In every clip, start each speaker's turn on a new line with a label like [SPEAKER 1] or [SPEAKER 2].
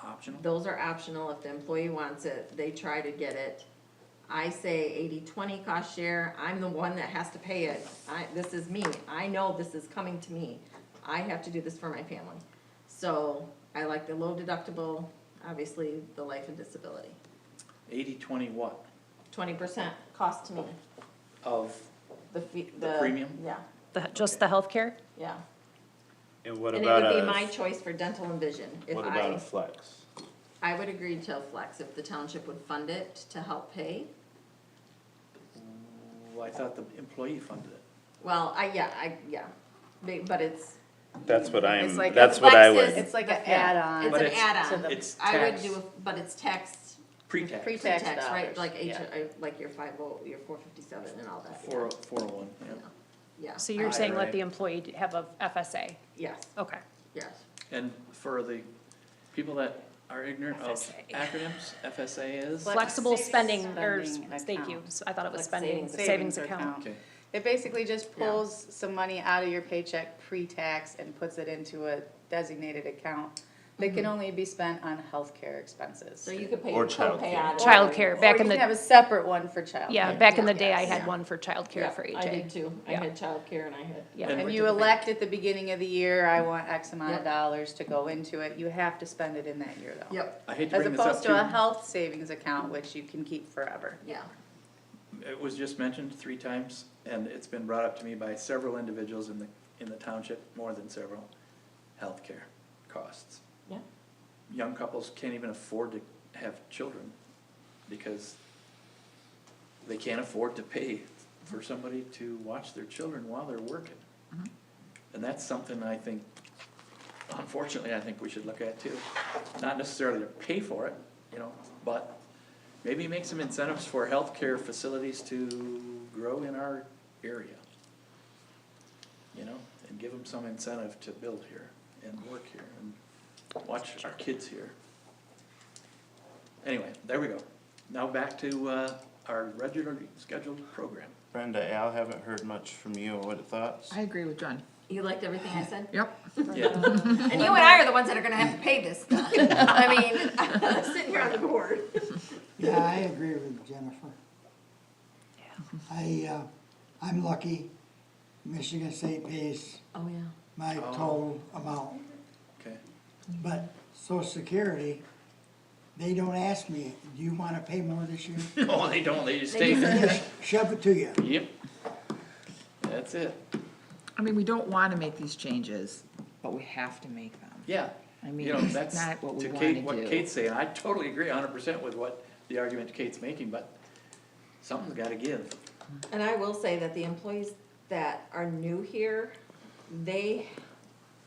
[SPEAKER 1] optional?
[SPEAKER 2] Those are optional if the employee wants it, they try to get it. I say 80-20 cost share, I'm the one that has to pay it, I, this is me, I know this is coming to me. I have to do this for my family. So I like the low deductible, obviously the life and disability.
[SPEAKER 1] Eighty, twenty what?
[SPEAKER 2] Twenty percent cost to me,
[SPEAKER 1] Of,
[SPEAKER 2] the fee,
[SPEAKER 1] The
[SPEAKER 2] the.
[SPEAKER 1] premium?
[SPEAKER 2] Yeah,
[SPEAKER 3] The- Just the healthcare?
[SPEAKER 2] yeah.
[SPEAKER 4] And what
[SPEAKER 2] And it
[SPEAKER 4] about
[SPEAKER 2] would be my
[SPEAKER 4] a,
[SPEAKER 2] choice for dental and vision. If
[SPEAKER 4] what about a
[SPEAKER 2] I,
[SPEAKER 4] flex?
[SPEAKER 2] I would agree to a flex if the township would fund it to help pay.
[SPEAKER 1] well, I thought the employee funded it.
[SPEAKER 2] Well, I, yeah, I, yeah, But- but it's.
[SPEAKER 4] That's what I'm,
[SPEAKER 5] It's like a
[SPEAKER 4] that's what I
[SPEAKER 2] flex is-
[SPEAKER 4] would,
[SPEAKER 5] It's like an
[SPEAKER 2] yeah,
[SPEAKER 5] add-on.
[SPEAKER 2] It's
[SPEAKER 1] But
[SPEAKER 2] an
[SPEAKER 1] it's-
[SPEAKER 5] to the-
[SPEAKER 2] add-on.
[SPEAKER 1] It's
[SPEAKER 2] I would
[SPEAKER 1] tax,
[SPEAKER 2] do, a- but it's tax,
[SPEAKER 1] pre-tax,
[SPEAKER 5] Pre-tax
[SPEAKER 2] tax, right,
[SPEAKER 5] dollars,
[SPEAKER 2] like H,
[SPEAKER 5] yeah.
[SPEAKER 2] uh, like your five oh, your four fifty-seven and all that, yeah.
[SPEAKER 1] four, four oh one, yeah.
[SPEAKER 2] yeah.
[SPEAKER 3] So you're
[SPEAKER 1] Right,
[SPEAKER 3] saying
[SPEAKER 1] right.
[SPEAKER 3] let the employee have a FSA?
[SPEAKER 2] Yes,
[SPEAKER 3] Okay.
[SPEAKER 2] yes.
[SPEAKER 1] And for the people that are ignorant of
[SPEAKER 3] FSA.
[SPEAKER 1] acronyms, FSA is?
[SPEAKER 5] Flex-
[SPEAKER 3] Flexible spending, or,
[SPEAKER 5] Spending
[SPEAKER 3] thank you,
[SPEAKER 5] account.
[SPEAKER 3] So I thought it was
[SPEAKER 2] Flex
[SPEAKER 3] spending,
[SPEAKER 2] savings
[SPEAKER 3] savings account.
[SPEAKER 1] Okay,
[SPEAKER 5] It basically just
[SPEAKER 2] Yeah.
[SPEAKER 5] pulls some money out of your paycheck pre-tax and puts it into a designated account that can only be spent on healthcare expenses.
[SPEAKER 2] Mm-hmm. So you could pay
[SPEAKER 4] Or
[SPEAKER 2] your copay
[SPEAKER 4] childcare.
[SPEAKER 2] out of.
[SPEAKER 3] Childcare,
[SPEAKER 5] Or
[SPEAKER 3] back
[SPEAKER 5] you
[SPEAKER 3] in
[SPEAKER 5] can have
[SPEAKER 3] the,
[SPEAKER 5] a separate one for child.
[SPEAKER 3] yeah, back in the
[SPEAKER 2] Yeah.
[SPEAKER 3] day, I had
[SPEAKER 2] Yeah.
[SPEAKER 3] one for
[SPEAKER 2] Yeah,
[SPEAKER 3] childcare for
[SPEAKER 2] I did
[SPEAKER 3] HA.
[SPEAKER 2] too, I
[SPEAKER 3] Yeah.
[SPEAKER 2] had childcare and I had.
[SPEAKER 3] Yeah.
[SPEAKER 1] And
[SPEAKER 5] And
[SPEAKER 1] we're
[SPEAKER 5] you
[SPEAKER 1] doing-
[SPEAKER 5] elect at the beginning of the year, I want X amount
[SPEAKER 2] Yep.
[SPEAKER 5] of dollars to go into it, you have to spend it in that year though.
[SPEAKER 2] Yep,
[SPEAKER 1] I hate to
[SPEAKER 5] As
[SPEAKER 1] bring this up
[SPEAKER 5] opposed to a
[SPEAKER 1] too,
[SPEAKER 5] health savings account, which you can keep forever.
[SPEAKER 2] yeah,
[SPEAKER 1] it was just mentioned three times, and it's been brought up to me by several individuals in the, in the township, more than several, healthcare costs.
[SPEAKER 2] yeah,
[SPEAKER 1] Young couples can't even afford to have children, because they can't afford to pay for somebody to watch their children while they're working. And that's something I think, unfortunately, I think we should look at too. Not necessarily to pay for it, you know, but maybe make some incentives for healthcare facilities to grow in our area. You know, and give them some incentive to build here and work here and watch our kids here. Anyway, there we go. Now back to, uh, our regularly scheduled program.
[SPEAKER 4] Brenda, Al, haven't heard much from you, what are thoughts?
[SPEAKER 6] I agree with John.
[SPEAKER 2] you liked everything I said?
[SPEAKER 6] Yep.
[SPEAKER 1] Yeah,
[SPEAKER 2] And you and I are the ones that are gonna have to pay this stuff. I mean, sitting here on the board.
[SPEAKER 7] Yeah, I agree with Jennifer. I, uh, I'm lucky, Michigan State pays
[SPEAKER 2] Oh, yeah.
[SPEAKER 7] my total amount,
[SPEAKER 1] okay.
[SPEAKER 7] but social security, they don't ask me, do you wanna pay more this year?
[SPEAKER 1] Oh, they don't, they just take it.
[SPEAKER 7] Just Shove it to you.
[SPEAKER 1] Yep. That's it.
[SPEAKER 6] I mean, we don't want to make these changes, but we have to make them.
[SPEAKER 1] Yeah.
[SPEAKER 6] I mean,
[SPEAKER 1] You know,
[SPEAKER 6] it's
[SPEAKER 1] that's
[SPEAKER 6] not what we
[SPEAKER 1] to
[SPEAKER 6] wanna
[SPEAKER 1] Kate, what
[SPEAKER 6] do.
[SPEAKER 1] Kate's saying. I totally agree hundred percent with what the argument Kate's making, but something's gotta give.
[SPEAKER 2] And I will say that the employees that are new here, they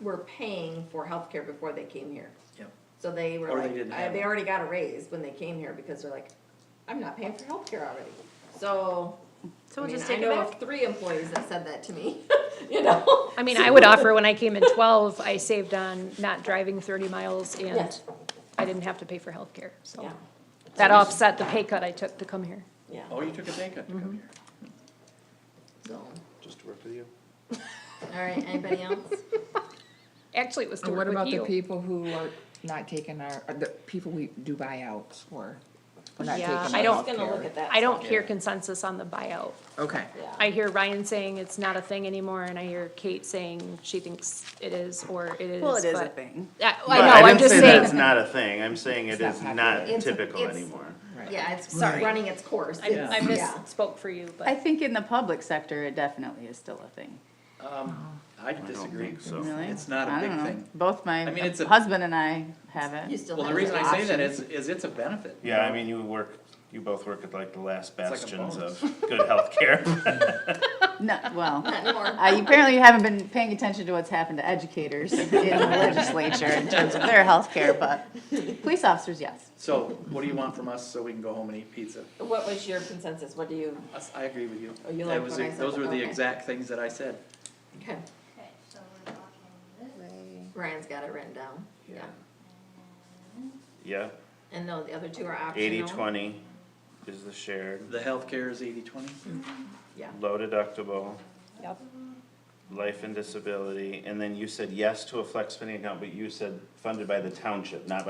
[SPEAKER 2] were paying for healthcare before they came here.
[SPEAKER 1] Yep.
[SPEAKER 2] So they were
[SPEAKER 1] Or they
[SPEAKER 2] like,
[SPEAKER 1] didn't
[SPEAKER 2] I-
[SPEAKER 1] have
[SPEAKER 2] they
[SPEAKER 1] it.
[SPEAKER 2] already got a raise when they came here because they're like, I'm not paying for healthcare already. So, I
[SPEAKER 5] So we'll
[SPEAKER 2] mean,
[SPEAKER 5] just
[SPEAKER 2] I
[SPEAKER 5] take it
[SPEAKER 2] know
[SPEAKER 5] back.
[SPEAKER 2] of three employees that said that to me, you know?
[SPEAKER 3] I mean, I would offer, when I came in twelve, I saved on not driving thirty miles and
[SPEAKER 2] Yes.
[SPEAKER 3] I didn't have to pay for healthcare, so.
[SPEAKER 2] Yeah,
[SPEAKER 3] That offset the pay cut I took to come here.
[SPEAKER 2] yeah,
[SPEAKER 1] Oh, you took a pay cut to
[SPEAKER 6] Mm-hmm.
[SPEAKER 1] come here.
[SPEAKER 2] so,
[SPEAKER 4] Just work with you.
[SPEAKER 2] all right, anybody else?
[SPEAKER 3] Actually, it was to
[SPEAKER 6] And what
[SPEAKER 3] work
[SPEAKER 6] about
[SPEAKER 3] with
[SPEAKER 6] the
[SPEAKER 3] you.
[SPEAKER 6] people who are not taking our, or the people we do buyouts for? We're not
[SPEAKER 3] Yeah,
[SPEAKER 6] taking
[SPEAKER 3] I
[SPEAKER 6] our
[SPEAKER 3] don't-
[SPEAKER 2] Just gonna look at
[SPEAKER 6] healthcare.
[SPEAKER 2] that.
[SPEAKER 3] I don't hear
[SPEAKER 1] Yeah.
[SPEAKER 3] consensus on the buyout.
[SPEAKER 6] Okay,
[SPEAKER 2] Yeah.
[SPEAKER 3] I hear Ryan saying it's not a thing anymore, and I hear Kate saying she thinks it is, or it is,
[SPEAKER 5] Well, it is a
[SPEAKER 3] but-
[SPEAKER 5] thing.
[SPEAKER 3] I, I
[SPEAKER 2] Oh,
[SPEAKER 4] But
[SPEAKER 3] know,
[SPEAKER 4] I
[SPEAKER 3] I'm
[SPEAKER 4] didn't
[SPEAKER 3] just
[SPEAKER 4] say that's
[SPEAKER 3] saying,
[SPEAKER 4] not a thing, I'm saying it
[SPEAKER 6] It's not
[SPEAKER 4] is
[SPEAKER 6] popular.
[SPEAKER 4] not
[SPEAKER 2] It's-
[SPEAKER 4] typical
[SPEAKER 2] it's-
[SPEAKER 4] anymore.
[SPEAKER 6] right.
[SPEAKER 2] Yeah, it's
[SPEAKER 6] Right.
[SPEAKER 2] running its course.
[SPEAKER 3] I,
[SPEAKER 1] Yeah.
[SPEAKER 3] I
[SPEAKER 2] Yeah.
[SPEAKER 3] misspoke for you,
[SPEAKER 5] I
[SPEAKER 3] but
[SPEAKER 5] think in the public sector, it definitely is still a thing.
[SPEAKER 1] Um, I disagree.
[SPEAKER 4] think so.
[SPEAKER 5] Oh. Really?
[SPEAKER 1] It's not a
[SPEAKER 5] I
[SPEAKER 1] big
[SPEAKER 5] don't know.
[SPEAKER 1] thing.
[SPEAKER 5] Both my
[SPEAKER 1] I mean, it's a-
[SPEAKER 5] husband and I have
[SPEAKER 2] You
[SPEAKER 5] it.
[SPEAKER 2] still
[SPEAKER 1] Well, the
[SPEAKER 2] have
[SPEAKER 1] reason
[SPEAKER 2] the
[SPEAKER 1] I say that
[SPEAKER 2] option.
[SPEAKER 1] is, is it's a benefit.
[SPEAKER 4] Yeah, I mean, you work, you both work at like the last
[SPEAKER 1] like a
[SPEAKER 4] bastions
[SPEAKER 1] bonus.
[SPEAKER 4] of good healthcare.
[SPEAKER 5] No, well,
[SPEAKER 2] Not anymore.
[SPEAKER 5] I, apparently you haven't been paying attention to what's happened to educators in the legislature in terms of their health care, but police officers, yes.
[SPEAKER 1] So what do you want from us so we can go home and eat pizza?
[SPEAKER 2] What was your consensus? What do you,
[SPEAKER 1] Us- I agree with you.
[SPEAKER 2] Oh, you
[SPEAKER 1] That
[SPEAKER 2] like
[SPEAKER 1] was
[SPEAKER 2] what
[SPEAKER 1] the-
[SPEAKER 2] I said?
[SPEAKER 1] Those were the
[SPEAKER 2] Okay.
[SPEAKER 1] exact things that I said.
[SPEAKER 2] okay,
[SPEAKER 8] Okay, so we're talking this,
[SPEAKER 2] Ryan's got it written down, yeah.
[SPEAKER 4] Yeah,
[SPEAKER 2] And no, the other two are optional.
[SPEAKER 4] eighty, twenty is the shared,
[SPEAKER 1] The healthcare is eighty twenty?
[SPEAKER 2] Yeah,
[SPEAKER 4] low deductible,
[SPEAKER 3] Yep.
[SPEAKER 4] life and disability, and then you said yes to a flex spending account, but you said funded by the township, not by